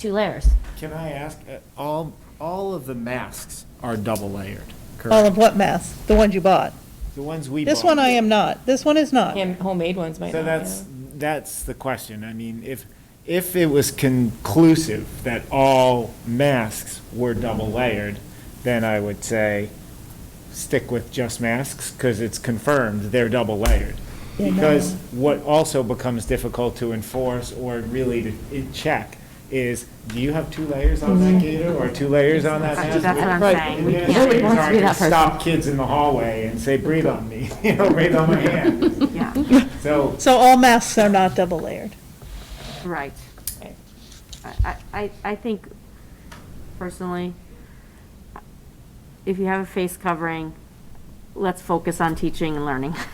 two layers. Can I ask, uh, all, all of the masks are double layered, All correct? of what mask? The ones you bought? The ones we bought. This one I am not. This one is not. Hand- Homemade ones might So not, that's, yeah. that's the question. I mean, if, if it was conclusive that all masks were double layered, then I would say stick with just masks because it's confirmed they're double layered. Because what also becomes difficult to enforce or really to i- check is, do you have two layers on Mm-hmm. that gator or two layers on that mask? That's what I'm Right. saying. We can't- Administrators Nobody wants to be aren't gonna that person. Stop kids in the hallway and say, breathe on me, you know, breathe on my hand. Yeah, So So all masks are not double layered. right. Right. I, I, I think personally, if you have a face covering, let's focus on teaching and learning.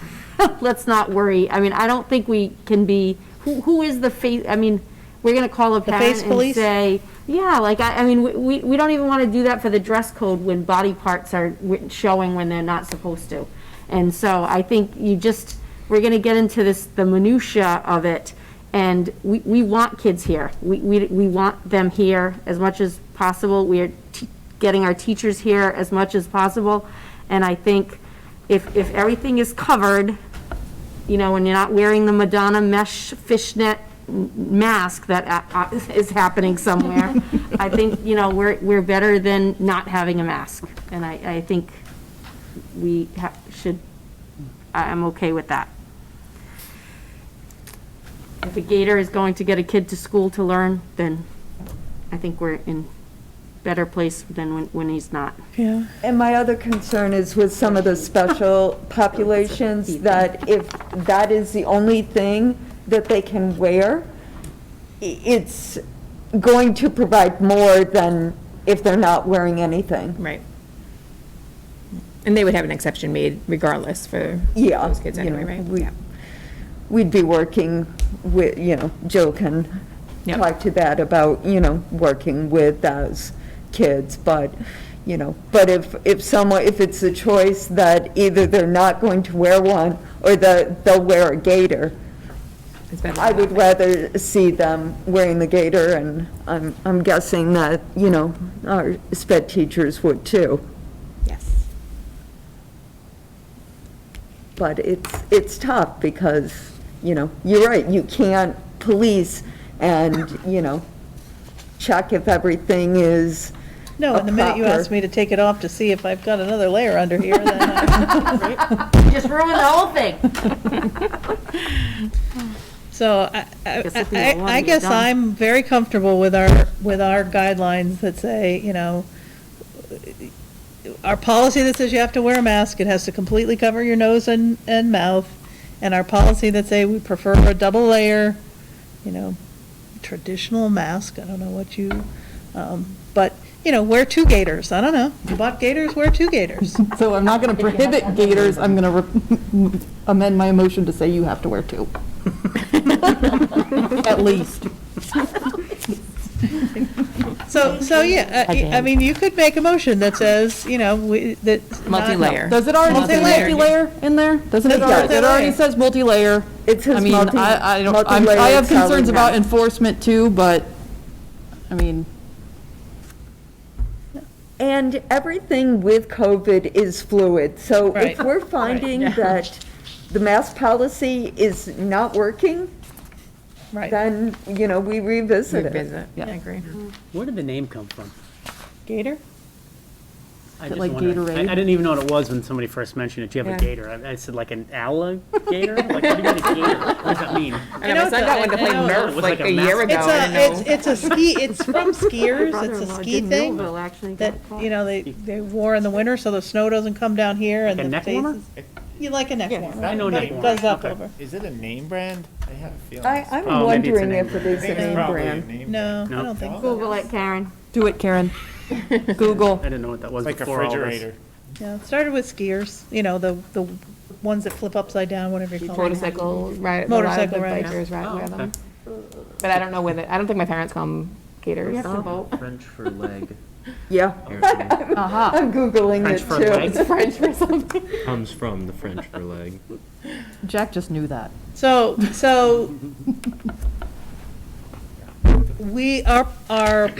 Let's not worry. I mean, I don't think we can be, who, who is the face, I mean, we're gonna call a face parent and police? say, yeah, like, I, I mean, we- we, we don't even wanna do that for the dress code when body parts are wi- showing when they're not supposed to. And so I think you just, we're gonna get into this, the minutia of it. And we, we want kids here. We, we, we want them here as much as possible. We are t- getting our teachers here as much as possible. And I think if, if everything is covered, you know, and you're not wearing the Madonna mesh fishnet m- mask that uh, uh, is happening somewhere, I think, you know, we're, we're better than not having a mask. And I, I think we ha- should, I- I'm okay with that. If a gator is going to get a kid to school to learn, then I think we're in better place than when, when he's not. Yeah. And my other concern is with some of the special populations, that if that is the only thing that they can wear, i- it's going to provide more than if they're not wearing anything. Right. And they would have an exception made regardless for Yeah. those kids you anyway, know, right? we- We'd be working with, you know, Jill can Yeah. talk to that about, you know, working with those kids, but, you know, but if, if someone, if it's a choice that either they're not going to wear one, or the, they'll wear a gaiter, It's better. I would rather see them wearing the gaiter, and I'm, I'm guessing that, you know, our sped teachers would too. Yes. But it's, it's tough because, you know, you're right, you can't police and, you know, check if everything is. No, and the minute you proper- ask me to take it off to see if I've got another layer under here, then I, Just ruin the whole thing. so I, I, Guess if we I- don't want it, I you're guess done. I'm very comfortable with our, with our guidelines that say, you know, our policy that says you have to wear a mask, it has to completely cover your nose and, and mouth, and our policy that say we prefer a double layer, you know, traditional mask, I don't know what you, um, but, you know, wear two gaiters, I don't know. You bought gaiters, wear two gaiters. So I'm not going to prohibit gators, I'm going to amend my motion to say you have to wear two. At least. So, so, yeah, uh, I mean, you could make a motion that says, you know, we, that. Multi-layer. Does it already say Multi-layer. multi-layer in there? Doesn't it? It does. It already says multi-layer. It says I mean, multi- I, I don't, I'm- I multi-layered have concerns covering about that. enforcement too, but, I mean, And everything with COVID is fluid, so if Right. we're finding that the mask policy is not working, Right. then, you know, we revisit it. Revisit, I agree. Where did the name come from? Gator? I Is it just like wondered. I- Gatorade? I didn't even know what it was when somebody first mentioned it. Do you have a Yeah. gator? I I said like an alligator? Like, what do you mean a gator? What does that mean? I know, my son got one to play It Nerf was like like a a year ago. mask. It's I a, know. it's, it's a ski, it's from skiers, it's a Brother-in-law ski did thing Millville actually got that, caught. you know, they, they wore in the winter so the snow doesn't come down here and a the neck faces. warmer? You like a neck warmer. I know but neck it warmer, Does up okay. over. Is it a name brand? I have a feeling. I, it's- I'm Oh, maybe it's a wondering name if it is a It's name probably a brand. name brand. No, I No. don't think so. Google it, Karen. do it, Karen. Google. I didn't know what that was Like a before all this. refrigerator. Yeah, it started with skiers, you know, the, the ones that flip upside down, whatever you call them. Motorcycle ride, the ride, the Motorcycle rides. bikers ride, Oh, wear okay. them. But I don't know whether, I don't think my parents call them gators. We have to vote. French for leg, Yeah, apparently. I'm Googling French it for too. legs? French or something. Comes from the French for leg. Jack just knew that. So, so, we, our, our